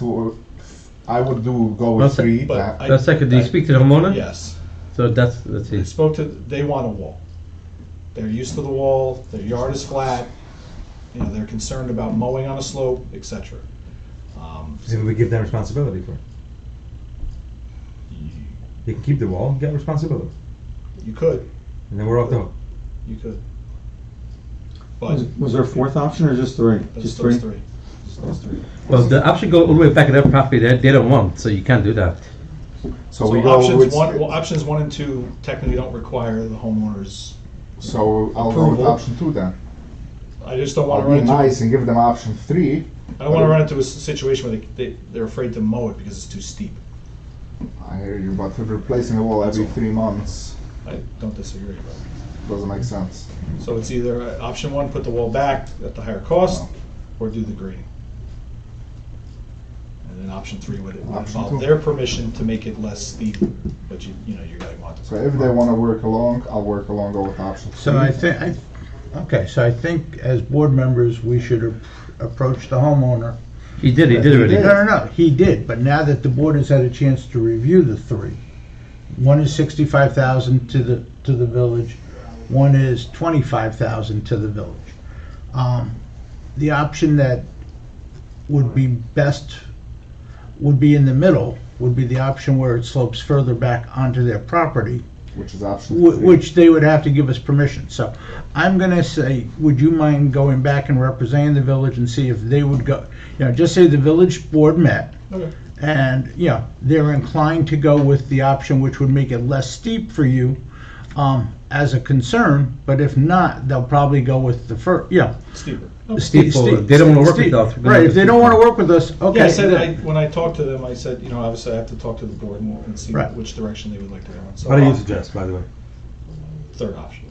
So I would do go Well, with so- three. but yeah. I- That's second. Do you I- speak to the homeowner? Yes. So that's that's I it. spoke to, they want a wall. They're used to the wall, their yard is flat, you know, they're concerned about mowing on a slope, et cetera. Um, Presumably, we give them responsibility for it. You They can keep the wall and get responsibility, you could, and then we're off the hook. you could. But Was, Hmm. was there a fourth option or just three? those Just those three? three, Just those three. Well, the option go all the way back at their property. They, they don't want, so you can't do that. so, So we go options with. one, well, options one and two technically don't require the homeowners. so I'll go with Approval. option two then. I just don't want to I'll run be into, I nice and give them option three. don't want to run into a s- situation where they, they, they're afraid to mow it because it's too steep. I hear you, but if replacing a wall every three months I don't disagree, but. doesn't make sense. So it's either uh, option one, put the wall back at the higher cost, or do the grading. And then option three would would Option involve two. their permission to make it less steep, but you, you know, you gotta want So to. if they want to work along, I'll work along. Go with option three. So I think, I, okay, so I think as board members, we should ap- approach the homeowner. He did. He did already. No, no, no, he did, but now that the board has had a chance to review the three, one is sixty-five thousand to the, to the village, one is twenty-five thousand to the village. Um, The option that would be best, would be in the middle, would be the option where it slopes further back onto their property, Which is option Wh- three. Which they would have to give us permission, so I'm gonna say, would you mind going back and representing the village and see if they would go, you know, just say the village board met, Okay. and, you know, they're inclined to go with the option which would make it less steep for you, um, as a concern, but if not, they'll probably go with the fir, yeah. Steeper. Steve- People, Steve- they don't wanna work Steve- with us, we're gonna Right, have if to they don't keep wanna them. work with us, okay. Yeah, I said, I, when I talked to them, I said, you know, obviously I have to talk to the board and and see Right. which direction they would like to go in. So What do you op- suggest, by the way? Third option,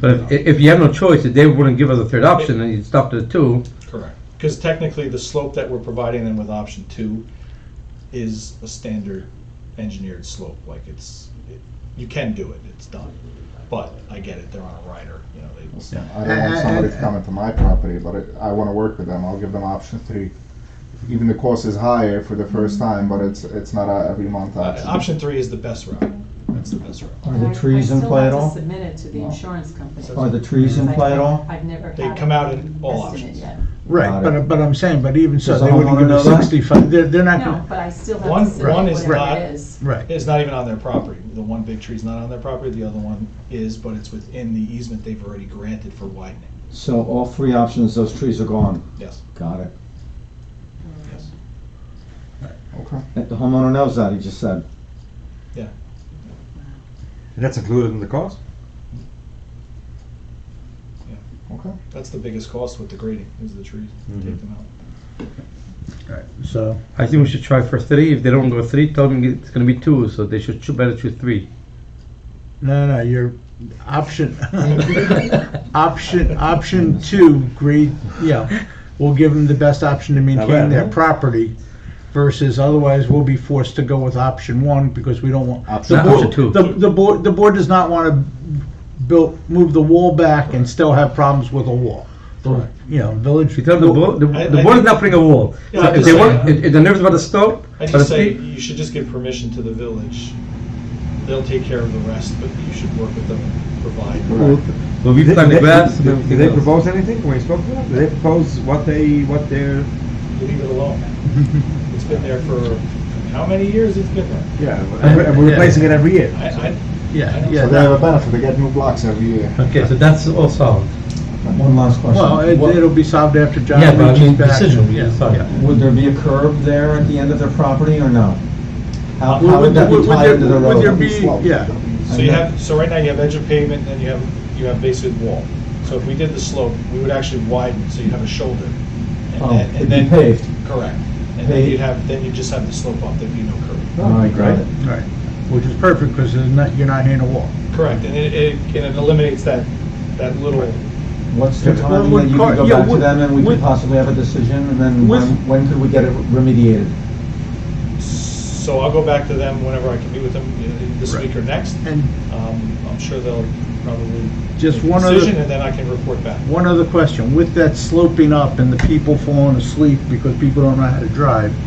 But if, if you have no choice, if they wouldn't give us a third option, and you stop to two, correct. Because technically, the slope that we're providing them with option two is a standard engineered slope, like it's, it- you can do it, it's done. But I get it, they're on a rider, you know, they, I don't want Uh, somebody to come into my property, but it- I want to work with them. I'll give them option three. Even the cost is higher for the first time, but it's it's not a every month Mm-hmm. Uh, option. Option three is the best route. That's the best route. Are the trees in play at I still have all? to submit it to the insurance company. Are the trees in play at all? I've never had. They come out an in all estimate options. yet. Right, but, but I'm saying, but even so, Does the they wouldn't homeowner give know us that? sixty-five, they're, they're not No, gonna, but I still have One- to one submit is whatever not- it is. right. It's not even on their property. The one big tree's not on their property, the other one is, but it's within the easement they've already granted for widening. So all three options, those trees are gone. Yes, Got it. yes. Okay. If The homeowner knows that, he just said. And that's included in the cost. Okay. That's the biggest cost with the grading, is the trees. Take them out. So, I think we should try for three. If they don't go three, tell them it's gonna be two, so they should choo- better choose three. no, no, your option, option, option two, grade, yeah, we'll give them the best option to maintain bad, their huh? property versus otherwise we'll be forced to go with option one because we don't want. Option the two. board- Option two. The, the board, the board does not want to build, move the wall back and still have problems with a wall. The, you know, village. If you tell the board, the, I- the I board is think- not putting a wall. Yeah, so I if they just- want, if, if they're nervous about the slope, I but just if say, they- you should just give permission to the village. They'll take care of the rest, but you should work with them and provide. well, we Did plant the they- grass. and Did everything did they else. propose anything when you spoke to them? Did they propose what they, what their, Leave it alone. It's been there for, how many years it's been there? yeah, and we're- and we're Yeah. replacing it every year? I, I, Yeah, So yeah. they have a benefit. They get new blocks every year. Okay, so that's all solved. One last question. Well, it- What- it'll be solved after John Yeah, but I reaches mean, back. decision, yeah, sorry. Yeah. Would there be a curb there at the end of their property or no? How, Would- how would that be would tied there- into the would there road? be- yeah. So you have, so right now you have edge of pavement, and then you have, you have basically wall. So if we did the slope, we would actually widen, so you'd have a shoulder. and Oh, then- and it'd be then- paved. Correct. And then you'd have, then you'd just have the slope up, there'd be no curb. All right, great. Right, which is perfect, because there's not, you're not in a wall. Correct, and it, it, and it eliminates that, that little, What's the Yeah. timing Well, that you car- can go yeah, back to with- them and we with- could possibly have a decision? And then with- when, when could we get it remediated? So I'll go back to them whenever I can meet with them, you know, this week or next. And Um, I'm sure they'll probably Just make a one other- decision, and then I can report back. one other question, with that sloping up and the people falling asleep because people don't know how to drive,